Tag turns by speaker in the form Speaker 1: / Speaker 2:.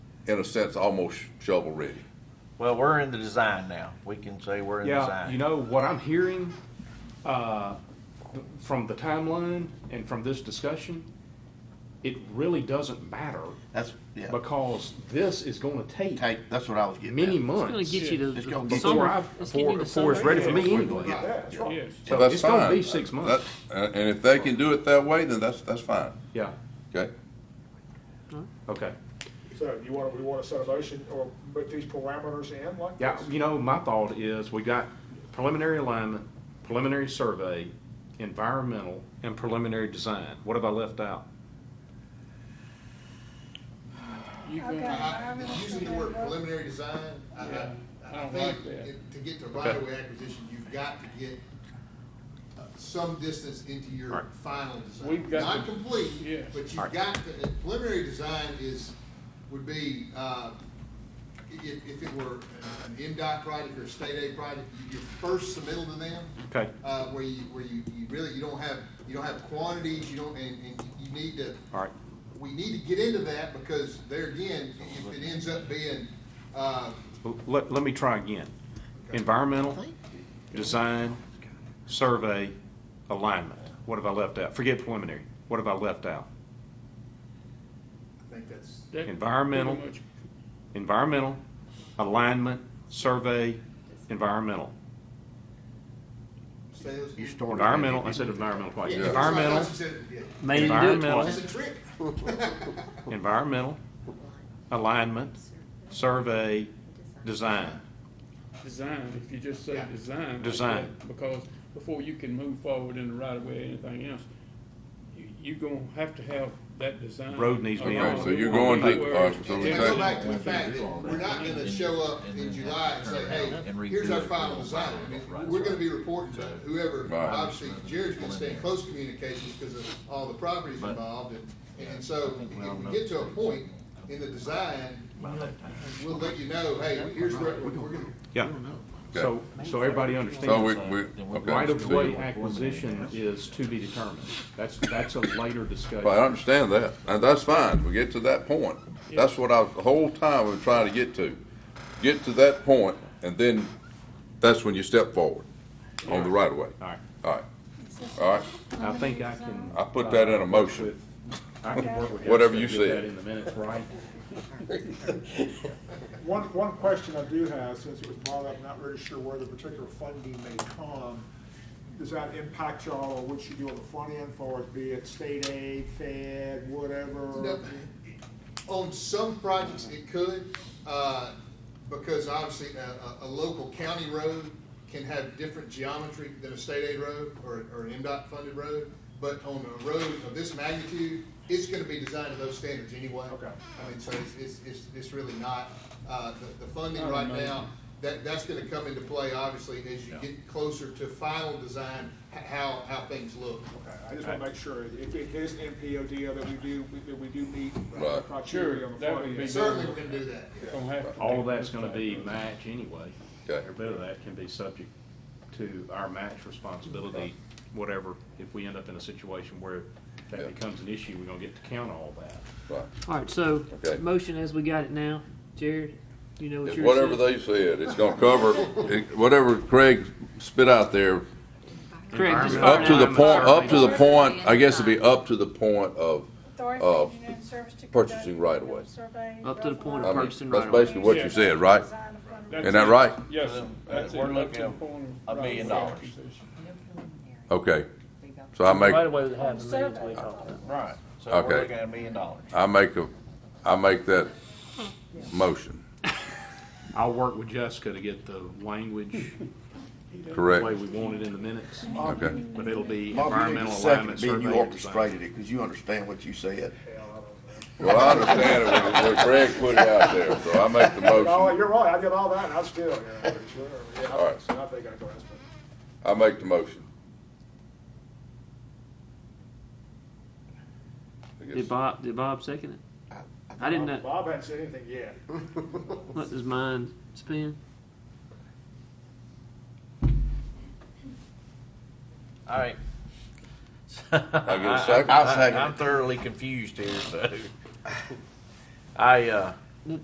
Speaker 1: in a sense, almost shovel ready.
Speaker 2: Well, we're in the design now. We can say we're in
Speaker 3: Yeah,
Speaker 2: design.
Speaker 3: you know, what I'm hearing, uh, th- from the timeline and from this discussion, it really doesn't matter
Speaker 4: That's, yeah,
Speaker 3: because this is gonna take
Speaker 4: take, that's what I was getting at.
Speaker 3: many
Speaker 5: It's gonna
Speaker 3: months
Speaker 5: get you to
Speaker 4: It's gonna get-
Speaker 5: the
Speaker 3: before
Speaker 5: summer.
Speaker 3: I,
Speaker 5: Let's get
Speaker 3: before,
Speaker 5: you to
Speaker 3: before it's
Speaker 5: summer.
Speaker 3: ready for me anyway.
Speaker 4: Yeah,
Speaker 1: Well,
Speaker 3: So
Speaker 1: that's
Speaker 3: it's gonna
Speaker 1: fine.
Speaker 3: be six months.
Speaker 1: That- And and if they can do it that way, then that's, that's fine,
Speaker 3: Yeah,
Speaker 1: okay?
Speaker 3: okay.
Speaker 6: So you want, we want to set a motion or put these parameters in like
Speaker 3: Yeah,
Speaker 6: this?
Speaker 3: you know, my thought is we got preliminary alignment, preliminary survey, environmental, and preliminary design. What have I left out?
Speaker 7: I- I- Using Uh-huh. the word preliminary design, I, I, I think it- to get to right of way acquisition, you've got to get uh, some distance into your final design. Not complete, but you've got, to- preliminary design is, would be, uh, i- if, if it were an MDOT project or a state aid project, you- your first submittal to them.
Speaker 3: Okay.
Speaker 7: Uh, where you, where you, you really, you don't have, you don't have quantities, you don't, and, and you need to.
Speaker 3: All right.
Speaker 7: We need to get into that because there again, if it ends up being, uh,
Speaker 3: L- Let, let me try again. Environmental, design, survey, alignment. What have I left out? Forget preliminary. What have I left out?
Speaker 7: I think that's,
Speaker 3: Environmental, environmental, alignment, survey, environmental.
Speaker 7: say those.
Speaker 4: You
Speaker 7: Yeah,
Speaker 4: started.
Speaker 3: Environmental, I said environmental twice.
Speaker 7: that's right,
Speaker 3: Environmental,
Speaker 7: that's what you said, yeah.
Speaker 5: Made him do it
Speaker 3: Environmental.
Speaker 5: twice.
Speaker 7: That's a trick.
Speaker 3: environmental, alignment, survey, design.
Speaker 8: Design, if you just say
Speaker 7: Yeah.
Speaker 8: design. like
Speaker 3: Design.
Speaker 8: that, Because before you can move forward in the right of way or anything else, you, you gonna have to have that design.
Speaker 3: Road needs to be
Speaker 8: along
Speaker 3: on.
Speaker 1: Okay, so you're
Speaker 8: the
Speaker 1: going
Speaker 8: way.
Speaker 1: to,
Speaker 8: Where-
Speaker 1: uh, so
Speaker 7: And
Speaker 1: we
Speaker 7: if I go
Speaker 1: take,
Speaker 7: back to the fact that we're not gonna show up in July and say, hey, here's our final design. I mean, We're gonna be reporting to whoever,
Speaker 1: Right.
Speaker 7: obviously Jared's gonna stay in close communications because of all the properties involved. And, and so if we get to a point in the design, we'll let you know, hey, here's where, we're gonna,
Speaker 3: Yeah. So, so everybody
Speaker 1: so we,
Speaker 3: understands,
Speaker 1: we, okay.
Speaker 3: right-of-way acquisition is to be determined. That's, that's a later
Speaker 1: Well, I
Speaker 3: discussion.
Speaker 1: understand that, and that's fine, we get to that point. That's what I, the whole time I'm trying to get to. Get to that point, and then that's when you step forward on the right of way.
Speaker 3: All right,
Speaker 1: All right, all right,
Speaker 3: I think I can.
Speaker 1: I put that in a motion.
Speaker 3: I can work with.
Speaker 1: Whatever
Speaker 3: Jessica
Speaker 1: you
Speaker 3: to get
Speaker 1: said.
Speaker 3: that in the minutes, right?
Speaker 6: One, one question I do have, since it was brought up, not really sure where the particular funding may come. Does that impact y'all, or what you do on the front end for it, be it state aid, fed,
Speaker 7: No,
Speaker 6: whatever?
Speaker 7: On some projects, it could, uh, because obviously a, a, a local county road can have different geometry than a state aid road or, or an MDOT funded road. But on a road of this magnitude, it's gonna be designed to those standards anyway.
Speaker 6: Okay.
Speaker 7: I mean, so it's, it's, it's, it's really not, uh, the, the funding right now, that, that's gonna come into play, obviously, as you get closer to final design, h- how, how things look.
Speaker 6: Okay, I just wanna make sure, if it is NPODL, that we do, that we do meet the
Speaker 1: Right.
Speaker 8: Sure,
Speaker 6: criteria on the
Speaker 8: that
Speaker 6: front
Speaker 8: would
Speaker 6: end.
Speaker 8: be
Speaker 7: Certainly, we're gonna do that, yeah.
Speaker 8: Gonna have to
Speaker 3: All of
Speaker 8: be-
Speaker 3: that's gonna be match anyway.
Speaker 1: Okay.
Speaker 3: Every bit of that can be subject to our match responsibility, whatever. If we end up in a situation where
Speaker 1: Yeah.
Speaker 3: that becomes an issue, we're gonna get to count all that.
Speaker 1: Right.
Speaker 5: All right, so
Speaker 1: Okay.
Speaker 5: motion as we got it now, Jared. You know what
Speaker 1: It's
Speaker 5: you're
Speaker 1: Whatever they said, it's gonna cover, it- whatever Craig spit out there,
Speaker 5: Correct. just
Speaker 1: up to the
Speaker 3: Environmental
Speaker 1: point, up to the
Speaker 3: survey.
Speaker 1: point, I guess it'd be up to the point of,
Speaker 9: Authority
Speaker 1: Uh,
Speaker 9: for engineering service to
Speaker 1: purchasing
Speaker 9: conduct
Speaker 1: right of way.
Speaker 9: survey
Speaker 5: Up to the
Speaker 9: of
Speaker 5: point
Speaker 1: I
Speaker 5: of
Speaker 9: land,
Speaker 1: mean,
Speaker 5: purchasing right
Speaker 1: that's
Speaker 5: away.
Speaker 1: basically what you said, right?
Speaker 9: design of front-
Speaker 8: That's
Speaker 1: Isn't that
Speaker 8: it.
Speaker 1: right?
Speaker 8: Yes,
Speaker 2: Uh,
Speaker 8: that's it.
Speaker 2: we're
Speaker 8: That's
Speaker 2: looking
Speaker 8: the point
Speaker 2: a
Speaker 8: of right
Speaker 2: million
Speaker 8: of way
Speaker 2: dollars.
Speaker 8: acquisition.
Speaker 1: Okay, so I make,
Speaker 2: Right away, it happens.
Speaker 9: survey.
Speaker 2: Right. So
Speaker 1: Okay.
Speaker 2: we're looking at a million dollars.
Speaker 1: I make a, I make that motion,
Speaker 3: I'll work with Jessica to get the language the way
Speaker 1: correct?
Speaker 3: we want it in the minutes,
Speaker 1: Okay,
Speaker 3: but it'll be
Speaker 4: Bob, you need
Speaker 3: environmental
Speaker 4: a second, being
Speaker 3: alignment survey.
Speaker 4: you
Speaker 3: and design.
Speaker 4: orchestrated it, because you understand what you said.
Speaker 1: well, I understand it, when- when Craig put it out there, so I make the
Speaker 6: Oh,
Speaker 1: motion,
Speaker 6: you're right, I did all that, and I still, yeah, sure, yeah,
Speaker 1: All
Speaker 6: I
Speaker 1: right.
Speaker 6: think- I think I grasped it.
Speaker 1: I make the motion. I guess-
Speaker 5: Did Bob, did Bob second it? I didn't uh, know.
Speaker 6: Bob hadn't said anything yet.
Speaker 5: Let his mind spin.
Speaker 2: All right.
Speaker 1: I get a second?
Speaker 2: I- I- I'm thoroughly confused here, so. I, uh,